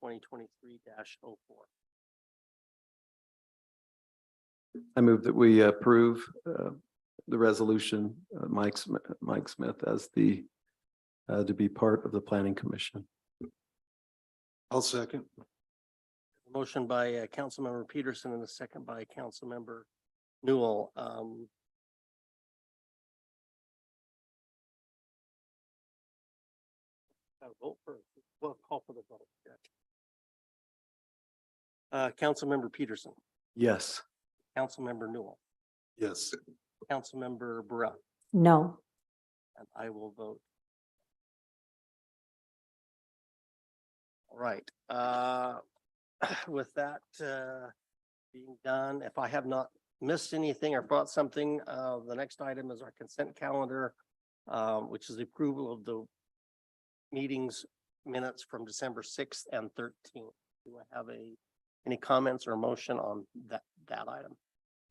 twenty twenty-three oh 4 I move that we approve uh, the resolution, uh, Mike, Sm- Mike Smith as the, uh, to be part of the planning commission. I'll second. Motion by uh, Councilmember Peterson and a second by Councilmember Newell. Um, uh, vote for, well, call for the vote. yeah. Uh, Councilmember Peterson, Yes. Councilmember Newell, Yes. Councilmember Burrell, No, and I will vote. All right, uh, with that, uh, being done, if I have not missed anything or brought something, uh, the next item is our consent calendar, um, which is the approval of the meetings minutes from December sixth and thirteenth. Do I have a, any comments or motion on that, that item?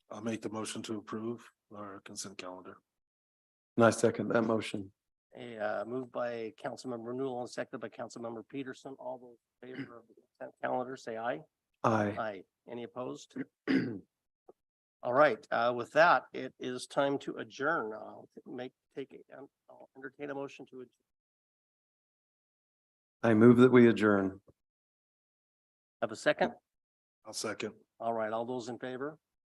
I'll make the motion to approve our consent calendar. And I second that motion. A uh, moved by Councilmember Newell and seconded by Councilmember Peterson. All those in favor of the consent calendar, say aye. Aye. Aye. Any opposed? All right, uh, with that, it is time to adjourn. I'll make, take, a- um, I'll entertain a motion to adjourn. I move that we adjourn. Have a second? I'll second. All right, all those in favor?